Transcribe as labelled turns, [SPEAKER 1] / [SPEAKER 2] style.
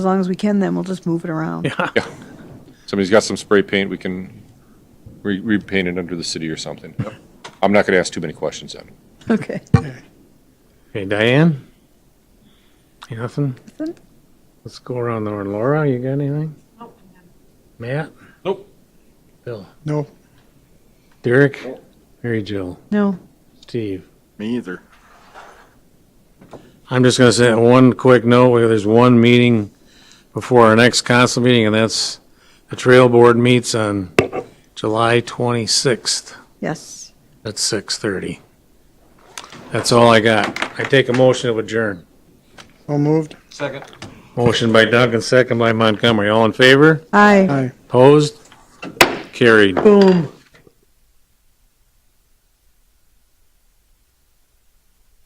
[SPEAKER 1] As long as we can, then we'll just move it around.
[SPEAKER 2] Yeah. Somebody's got some spray paint, we can re- repaint it under the city or something. I'm not going to ask too many questions then.
[SPEAKER 1] Okay.
[SPEAKER 3] Hey, Diane? You Nothing?
[SPEAKER 1] Nothing.
[SPEAKER 3] Let's go around the horn. Laura, you got anything? Matt?
[SPEAKER 4] Nope.
[SPEAKER 3] Bill?
[SPEAKER 5] No,
[SPEAKER 3] Derek? Mary Jill?
[SPEAKER 1] No,
[SPEAKER 3] Steve?
[SPEAKER 4] Me either.
[SPEAKER 3] I'm just gonna say one quick note, where there's one meeting before our next council meeting, and that's the trail board meets on July twenty-sixth
[SPEAKER 1] yes.
[SPEAKER 3] at six thirty. That's all I got. I take a motion to adjourn.
[SPEAKER 5] all moved.
[SPEAKER 4] Second.
[SPEAKER 3] Motion by Duncan, second by Montgomery. All in favor?
[SPEAKER 1] Aye.
[SPEAKER 5] Aye.
[SPEAKER 3] Opposed? Carried.
[SPEAKER 1] Boom.